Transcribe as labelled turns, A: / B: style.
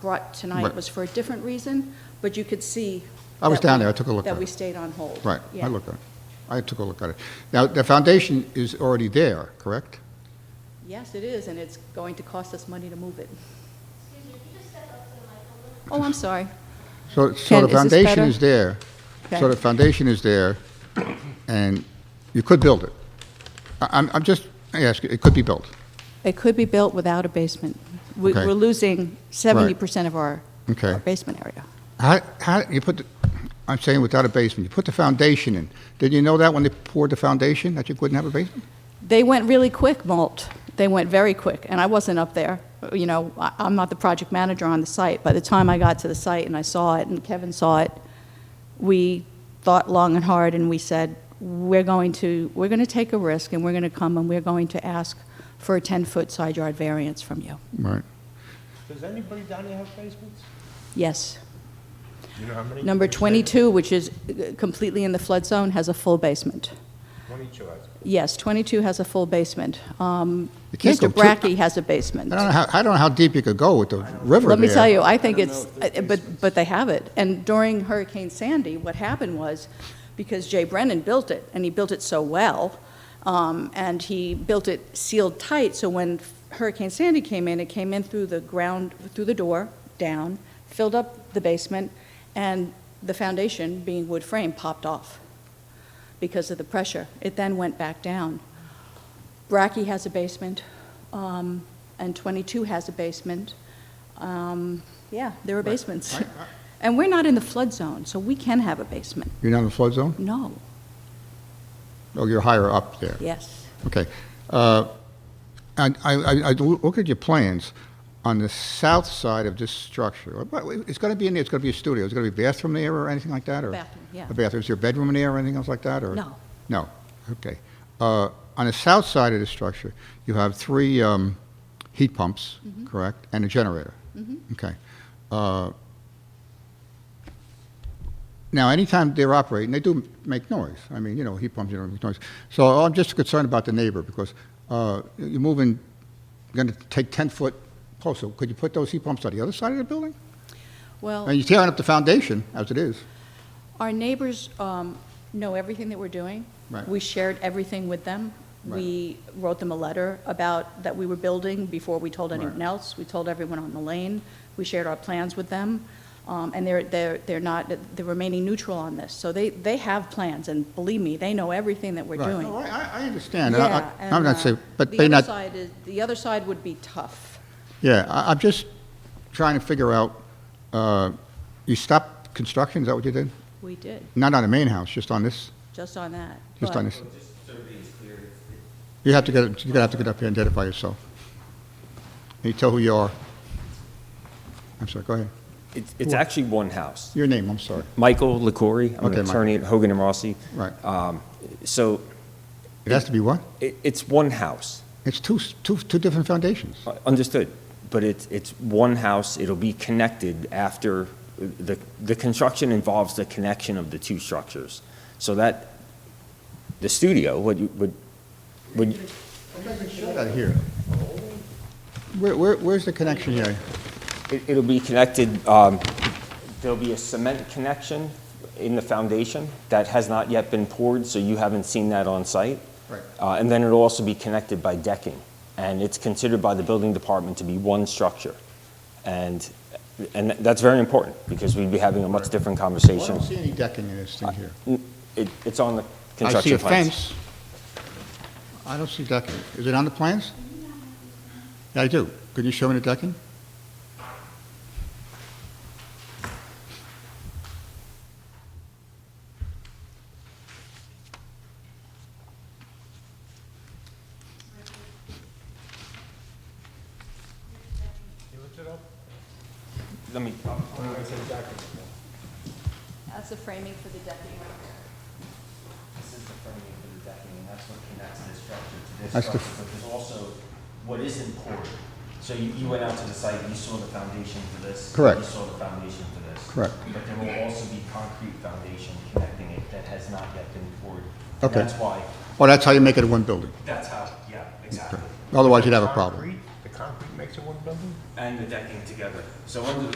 A: brought tonight
B: Right.
A: was for a different reason, but you could see.
B: I was
A: that
B: down
A: we-
B: there. I took a look
A: That
B: at
A: we
B: it.
A: stayed on hold.
B: Right,
A: Yeah.
B: I looked at it. I took a look at it. Now, the foundation is already there, correct?
A: Yes, it is, and it's going to cost us money to move it.
C: Excuse me, if you just step up to the mic a little
A: Oh, I'm sorry.
B: So, so
A: Ken,
B: the
A: is this
B: foundation
A: better?
B: is there. So
A: Okay.
B: the foundation is there, and you could build it. I- I'm, I'm just, I ask you, it could be built.
A: It could be built without a basement. We-
B: Okay.
A: We're losing 70% of our
B: Okay.
A: our basement area.
B: How, how, you put, the- I'm saying without a basement, you put the foundation in. Did you know that when they poured the foundation, that you couldn't have a basement?
A: They went really quick, Malt. They went very quick, and I wasn't up there. You know, I- I'm not the project manager on the site. By the time I got to the site and I saw it, and Kevin saw it, we thought long and hard, and we said, we're going to, we're going to take a risk, and we're going to come, and we're going to ask for a 10-foot side yard variance from you.
B: Right.
D: Does anybody down there have basements?
A: Yes.
D: You know how many?
A: Number 22, which is uh, completely in the flood zone, has a full basement.
D: Twenty-two, I
A: Yes, 22 has a full basement. Um,
B: You can't
A: Mr.
B: go too-
A: Brackey has a basement.
B: I don't know how, I don't know how deep you could go with the river
A: Let me
B: there.
A: tell you, I think it's, uh, but, but they have it. And during Hurricane Sandy, what happened was, because Jay Brennan built it, and he built it so well, um, and he built it sealed tight, so when Hurricane Sandy came in, it came in through the ground, through the door, down, filled up the basement, and the foundation, being wood frame, popped off because of the pressure. It then went back down. Brackey has a basement, um, and 22 has a basement. Um, Yeah, there are basements. And we're not in the flood zone, so we can have a basement.
B: You're not in the flood zone?
A: No,
B: Oh, you're higher up there.
A: yes.
B: Okay. Uh, And I, I, I do- look at your plans on the south side of this structure. But It's going to be in there, it's going to be a studio. Is there going to be a bathroom there or anything like that? or-
A: Bathroom, yeah.
B: A bathroom. Is there a bedroom in there or anything else like that? or-
A: No.
B: No, okay. Uh, On the south side of the structure, you have three um, heat pumps, correct? And a generator? Okay. Uh, now, anytime they're operating, they do make noise. I mean, you know, heat pumps, you know, make noise. So I'm just concerned about the neighbor because uh, you're moving, going to take 10 foot posts. So could you put those heat pumps on the other side of the building?
A: Well,
B: And you're tearing up the foundation as it is.
A: our neighbors um, know everything that we're doing.
B: Right.
A: We shared everything with them.
B: Right.
A: We wrote them a letter about, that we were building before we told anyone
B: Right.
A: else. We told everyone on the lane. We shared our plans with them. Um, And they're, they're, they're not, they're remaining neutral on this. So they, they have plans, and believe me, they know everything that we're
B: Right.
A: doing.
B: No, I- I, I understand. I-
A: Yeah,
B: I, am
A: and,
B: not
A: uh,
B: saying, but
A: the
B: they
A: other
B: not.
A: side is- The other side would be tough.
B: Yeah, I, I'm just trying to figure out. Uh, you stopped construction. Is that what you did?
A: We did,
B: Not on the main house, just on this.
A: just on that.
B: Just
A: But
B: on this.
E: So just so everybody's clear, it's- it's-
B: You have to get. You're gonna have to get up here and identify yourself. Can you tell who you are? I'm sorry. Go ahead.
E: it's, it's actually one house.
B: Your name. I'm sorry.
E: Michael LaCory,
B: Okay,
E: I'm an
B: Michael.
E: attorney at Hogan and Rossi.
B: Right.
E: Um, So
B: It has to be what?
E: it, it's one house,
B: It's two s- two- two different foundations.
E: uh, understood, but it's, it's one house, it'll be connected after, the, the construction involves the connection of the two structures. So that, the studio, would, you- would, would,
B: Out here. Where, where, where's the connection here?
E: it- it'll be connected, um, there'll be a cement connection in the foundation that has not yet been poured, so you haven't seen that on site.
B: Right.
E: Uh, And then it'll also be connected by decking, and it's considered by the building department to be one structure. And, and that's very important, because we'd be having a much different
B: Well, I
E: conversation.
B: don't see any decking in this thing here.
E: N- it- It's on the
B: I see
E: construction
B: a
E: plans.
B: fence. I don't see decking. Is it on the plans? Yeah, I do. Could you show me the decking?
E: Let me,
A: That's the framing for the decking right there.
E: This is the framing for the decking, and that's what connects this structure to this
B: That's the-
E: structure, but there's also what is in poured. So you, you went out to the site, you saw the foundation for this.
B: Correct.
E: You saw the foundation for this.
B: Correct.
E: But there will also be concrete foundation connecting it that has not yet been poured. And
B: Okay.
E: That's why,
B: Oh, Well, that's how you make it in one building.
E: that's how, yeah, exactly.
B: Otherwise, you'd have a problem.
D: The
F: concrete makes it one building?
D: And the decking together. So under the